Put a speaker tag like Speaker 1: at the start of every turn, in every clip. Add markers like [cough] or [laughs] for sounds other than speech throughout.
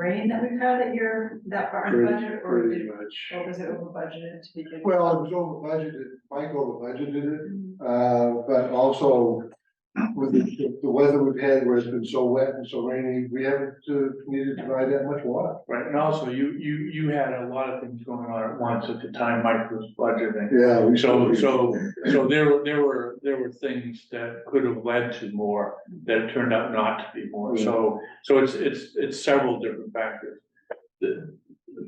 Speaker 1: rain that we've had at your, that barn
Speaker 2: pretty,
Speaker 1: budget, or
Speaker 2: pretty
Speaker 1: did,
Speaker 2: much.
Speaker 1: or was it over budgeted to begin? with? Mm-hmm.
Speaker 2: Well, it was over budgeted, Mike over budgeted it, uh, but also with the, the weather we've had where it's been so wet and so rainy, we haven't uh, needed to buy that much water.
Speaker 3: Right, and also you, you, you had a lot of things going on at once at the time Mike was budgeting.
Speaker 2: Yeah. we-
Speaker 3: So, so, so there were, there were, there were things that could have led to more that turned out not to be more. So, so it's, it's, it's several different factors. The-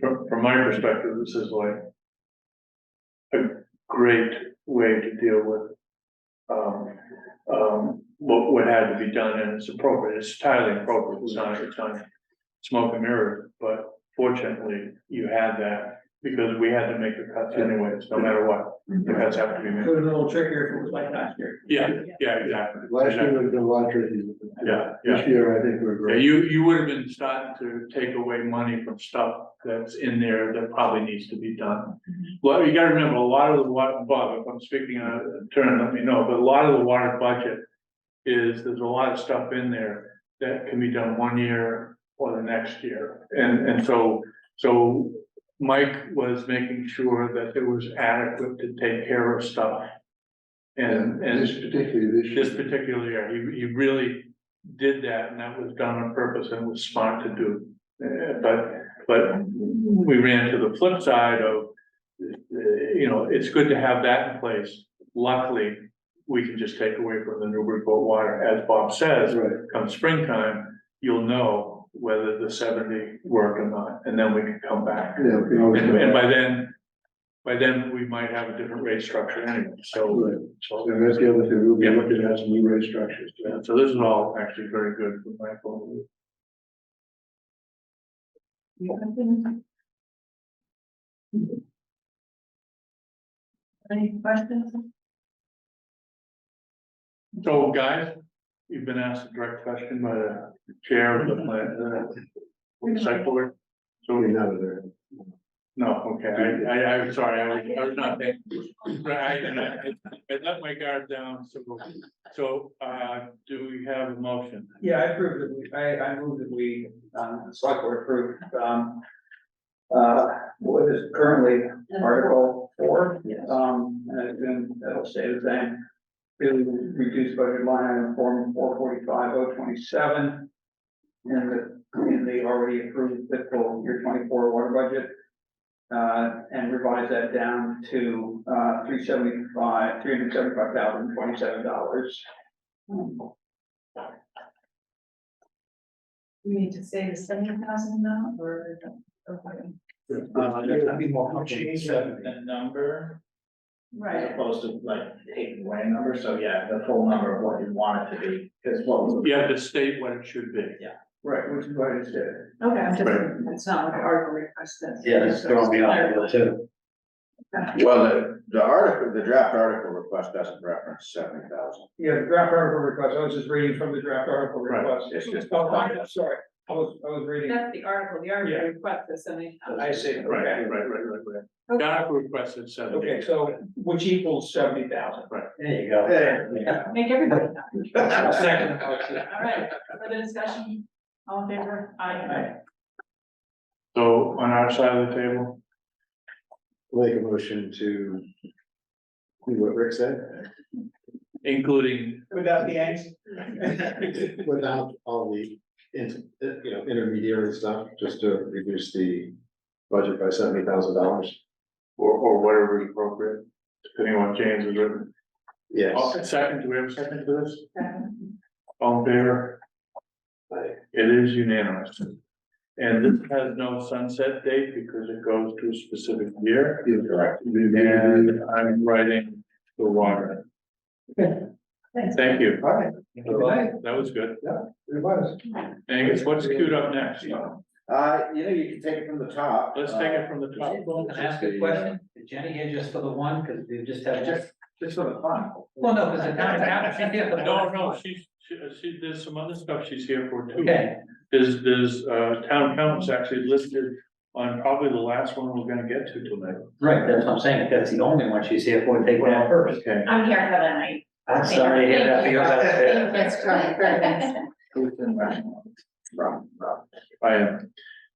Speaker 3: From, from my perspective, this is like a great way to deal with um, um, what, what had to be done and it's appropriate, it's entirely appropriate, it's not, it's not smoke and mirrors, but fortunately you had that because we had to make the cuts anyways, no matter what. The cuts have to be made.
Speaker 4: a little trickier if it was like last year.
Speaker 3: Yeah, yeah, exactly.
Speaker 2: Last year was a lot tricky.
Speaker 3: Yeah, yeah.
Speaker 2: This year, I think we're
Speaker 3: Yeah,
Speaker 2: great.
Speaker 3: you, you would have been starting to take away money from stuff that's in there that probably needs to be done. Well, you gotta remember, a lot of the water, Bob, if I'm speaking out of turn, let me know, but a lot of the water budget is, there's a lot of stuff in there that can be done one year or the next year. And, and so, so Mike was making sure that it was adequate to take care of stuff. And, and.
Speaker 2: This particularly this year.
Speaker 3: This particular year, he, he really did that, and that was done on purpose and was smart to do. Uh, but, but we ran to the flip side of, uh, you know, it's good to have that in place. Luckily, we can just take away from the Newburyport water, as Bob
Speaker 2: That's
Speaker 3: says,
Speaker 2: right.
Speaker 3: come springtime, you'll know whether the seventy worked or not, and then we can come back.
Speaker 2: Yeah, we can always
Speaker 3: And,
Speaker 2: go
Speaker 3: and
Speaker 2: back.
Speaker 3: by then, by then, we might have a different rate structure anyway, so,
Speaker 2: Right.
Speaker 3: so.
Speaker 2: And that's the other thing, we'll be
Speaker 3: Yeah.
Speaker 2: looking at some new rate structures.
Speaker 3: Yeah, so this is all actually very good for Michael.
Speaker 1: You have been- Any questions?
Speaker 3: So guys, you've been asked a direct question by the chair of the uh, plan, the site board. So,
Speaker 2: Getting out of there.
Speaker 3: no, okay, I, I, I'm sorry, I was, I was not thinking. Right, and I, I let my guard down, so, so, uh, do we have a motion?
Speaker 4: Yeah, I approve that we, I, I move that we, um, the select board approved, um, uh, what is currently Article four,
Speaker 1: Yes.
Speaker 4: um, and it's been, that'll stay the same. To reduce budget line item form four forty-five oh twenty-seven. In the, in the already approved fiscal year twenty-four water budget. Uh, and revise that down to, uh, three seventy-five, three hundred seventy-five thousand twenty-seven dollars.
Speaker 1: We need to say the seventy thousand now, or? okay.
Speaker 4: Uh, that'd be more comfortable.
Speaker 5: Change the, the number as
Speaker 1: Right,
Speaker 5: opposed to like taking away a number, so yeah, the full number of what you want it to be, because what was.
Speaker 3: You have to state what it should be.
Speaker 4: Right, which is what I said.
Speaker 1: okay, I'm just,
Speaker 3: Right.
Speaker 1: it's not like an article request that's.
Speaker 5: too.
Speaker 6: Well, the, the article, the draft article request doesn't reference seventy thousand.
Speaker 4: Yeah, the draft article request, I was just reading from the draft article
Speaker 3: Right.
Speaker 4: request.
Speaker 6: It's just-
Speaker 4: Oh, I'm sorry, I was, I was reading.
Speaker 1: That's the article, the article request is seventy thousand.
Speaker 4: I see,
Speaker 3: Right,
Speaker 4: okay,
Speaker 3: right, right, right, right.
Speaker 1: Okay.
Speaker 3: Doc requested seventy.
Speaker 4: okay, so which equals seventy
Speaker 5: [laughs]
Speaker 4: thousand.
Speaker 5: There you go.
Speaker 6: Yeah.
Speaker 1: Make everybody happy.
Speaker 4: Second.
Speaker 1: All right, further discussion, all in favor? Aye.
Speaker 3: So on our side of the table,
Speaker 2: Make a motion to. do What Rick said,
Speaker 3: including,
Speaker 4: Without the angst.
Speaker 2: without all the, in- uh, you know, intermediary stuff, just to reduce the budget by seventy thousand dollars.
Speaker 3: or, or whatever is appropriate, depending on what James has written.
Speaker 2: Yes.
Speaker 3: Oh, Second, do we have a second to this?
Speaker 1: Second.
Speaker 3: All in favor? It is unanimous. And this has no sunset date because it goes to a specific year.
Speaker 6: Correct.
Speaker 3: And I'm writing the water.
Speaker 1: Thanks.
Speaker 3: Thank you.
Speaker 2: All right,
Speaker 3: That was good.
Speaker 2: it was.
Speaker 3: Angus, what's queued up next?
Speaker 6: Uh, you know, you can take it from the top.
Speaker 3: Let's take it from the top.
Speaker 5: Can I ask a question? Did Jenny get just for the one, because we just have.
Speaker 6: Uh, Just, just for the fun.
Speaker 5: Well, no, because the town
Speaker 4: [laughs]
Speaker 5: council. she did for the
Speaker 3: No,
Speaker 5: one.
Speaker 3: no, she's, she, she- there's some other stuff she's here for too.
Speaker 5: Okay,
Speaker 3: There's, there's, uh, town council's actually listed on probably the last one we're gonna get to tonight.
Speaker 5: right, that's what I'm saying, if that's the only one she's here for, take one out first.
Speaker 3: Okay.
Speaker 7: I'm here for the night.
Speaker 5: I'm sorry to hear that, because that's.
Speaker 7: That's
Speaker 2: uh,
Speaker 6: Who's in Rushmore? Rob, Rob.
Speaker 3: I am.